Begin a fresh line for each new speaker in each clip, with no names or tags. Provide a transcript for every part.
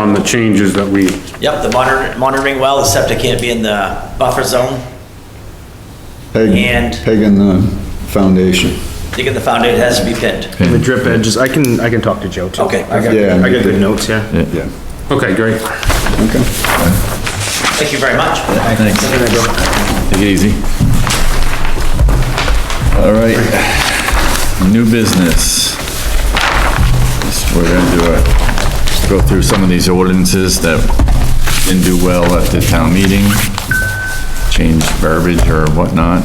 on the changes that we,
Yep, the monitor- monitoring well, the septic can't be in the buffer zone,
Peg,
And-
peg in the foundation.
digging the foundation has to be pinned.
The drip edges, I can, I can talk to Joe too.
Okay,
I got,
Yeah.
I got good notes, yeah.
Yeah.
okay, great.
Okay.
thank you very much.
Thanks. Take it easy. All right, new business. Just- We're gonna do a, just go through some of these ordinances that didn't do well at the town meeting, change verbiage or whatnot.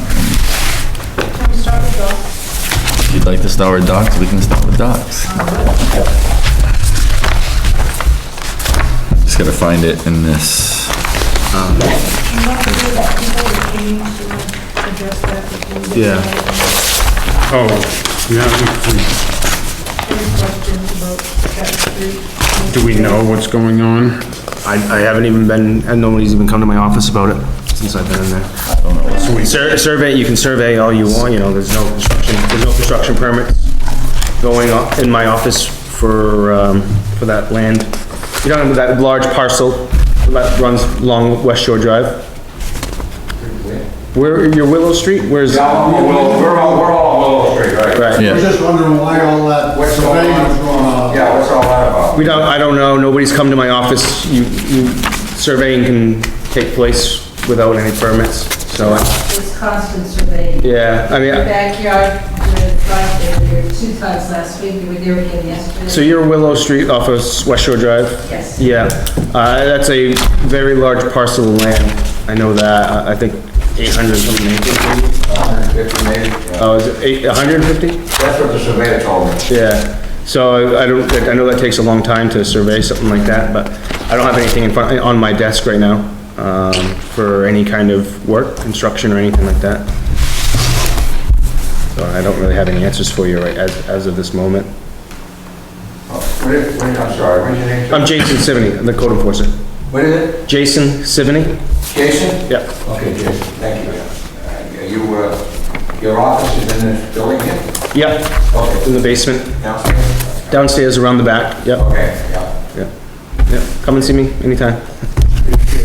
If you'd like to start with docs, we can start with docs. Just gotta find it in this.
Yeah.
Oh, yeah, we- do we know what's going on?
I, I haven't even been, and nobody's even come to my office about it since I've been in there. Sur- Survey, you can survey all you want, you know, there's no construction, there's no construction permits going on in my office for, um, for that land. You know, that large parcel that runs along West Shore Drive? Where, your Willow Street, where's?
Well, we're all, we're all Willow Street, right?
Right.
Yeah.
I was just wondering why all that, what's going on?
Yeah, what's all that about?
We don't, I don't know, nobody's come to my office, you, you, surveying can take place without any permits, so, I-
It's constant surveying.
yeah, I mean,
Your
I-
backyard, your driveway, there were two times last week, you were there again yesterday.
so you're Willow Street off of West Shore Drive?
Yes.
Yeah, uh, that's a very large parcel of land, I know that, I- I think eight hundred something acres, maybe?
If you made-
Oh, is it eight, hundred and fifty?
That's what the surveyor told me.
Yeah, so I I don't, I know that takes a long time to survey something like that, but I don't have anything in front, on my desk right now, um, for any kind of work, construction or anything like that. So I don't really have any answers for you right, as, as of this moment.
What is, what is, I'm sorry, what is your name? sir?
I'm Jason Sivney, I'm the code enforcer.
What is it?
Jason Sivney?
Jason?
Yeah,
Okay, Jason, thank you. Uh, You, uh, your office is in this building here?
yeah, in
Okay.
the basement,
Downstairs?
downstairs around the back, yep,
Okay, yeah.
yep. Yep, come and see me anytime.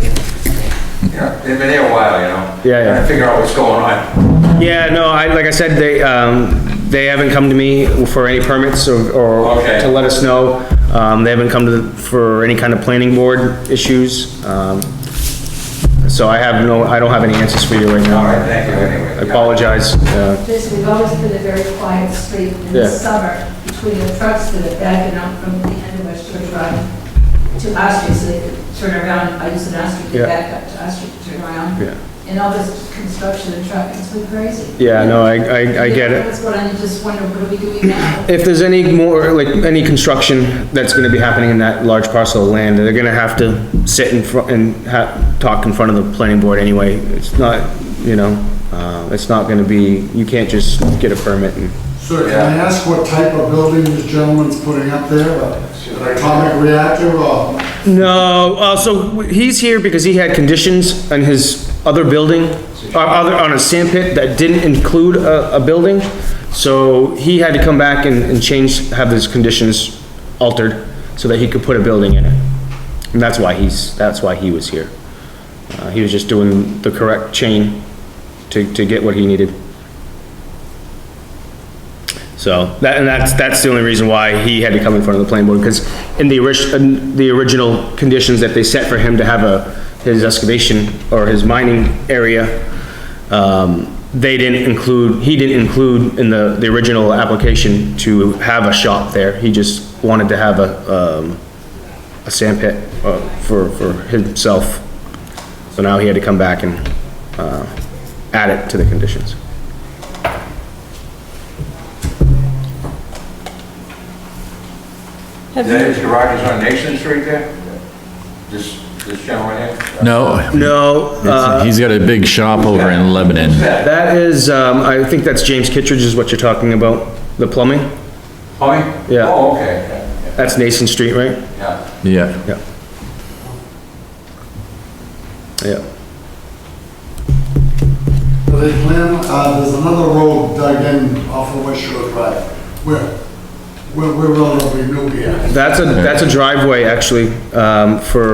Yeah, they've been here a while, you know?
Yeah, yeah.
Trying to figure out what's going on.
Yeah, no, I, like I said, they, um, they haven't come to me for any permits or, or
Okay.
to let us know. Um, they haven't come to, the- for any kind of planning board issues. Um, so I have no, I don't have any answers for you right
All right,
now.
thank you anyway.
I apologize, uh,
This, we've always been a very quiet street in the
Yeah.
summer between the trucks that are backing up from the end of West Shore Drive to our street, so they could turn around, I use an our street
Yeah.
to back up to our street to turn around.
Yeah.
And all this construction and traffic, it's been crazy.
yeah, no, I, I, I get it.
That's what I just wonder, what are we doing now?
If there's any more, like, any construction that's gonna be happening in that large parcel of land, they're gonna have to sit in front, and ha, talk in front of the planning board anyway. It's not, you know, uh, it's not gonna be, you can't just get a permit and,
Sir, can I ask what type of building this gentleman's putting up there? An Atomic reactor or?
no, uh, so he's here because he had conditions on his other building, uh, other, on a sand pit that didn't include a, a building. So he had to come back and, and change, have his conditions altered so that he could put a building in it. And that's why he's, that's why he was here. Uh, he was just doing the correct chain to, to get what he needed. So, that, and that's, that's the only reason why he had to come in front of the planning board, because in the orig, in the original conditions that they set for him to have a, his excavation or his mining area, um, they didn't include, he didn't include in the, the original application to have a shop there. He just wanted to have a, um, a sand pit uh, for, for himself. So now he had to come back and uh, add it to the conditions.
Is that his garage is on Nation Street there? This, this gentleman here?
No,
No, uh,
he's got a big shop over in Lebanon.
that is, um, I think that's James Kittredge is what you're talking about, the plumbing?
Tommy?
Yeah.
Oh, okay, yeah,
That's Nason Street, right?
yeah, yeah.
Yeah.
Yeah. Yeah.
Do they plan, uh, there's another road dug in off of West Shore Drive. Where? we're, we're relatively new here.
That's a, that's a driveway, actually, um, for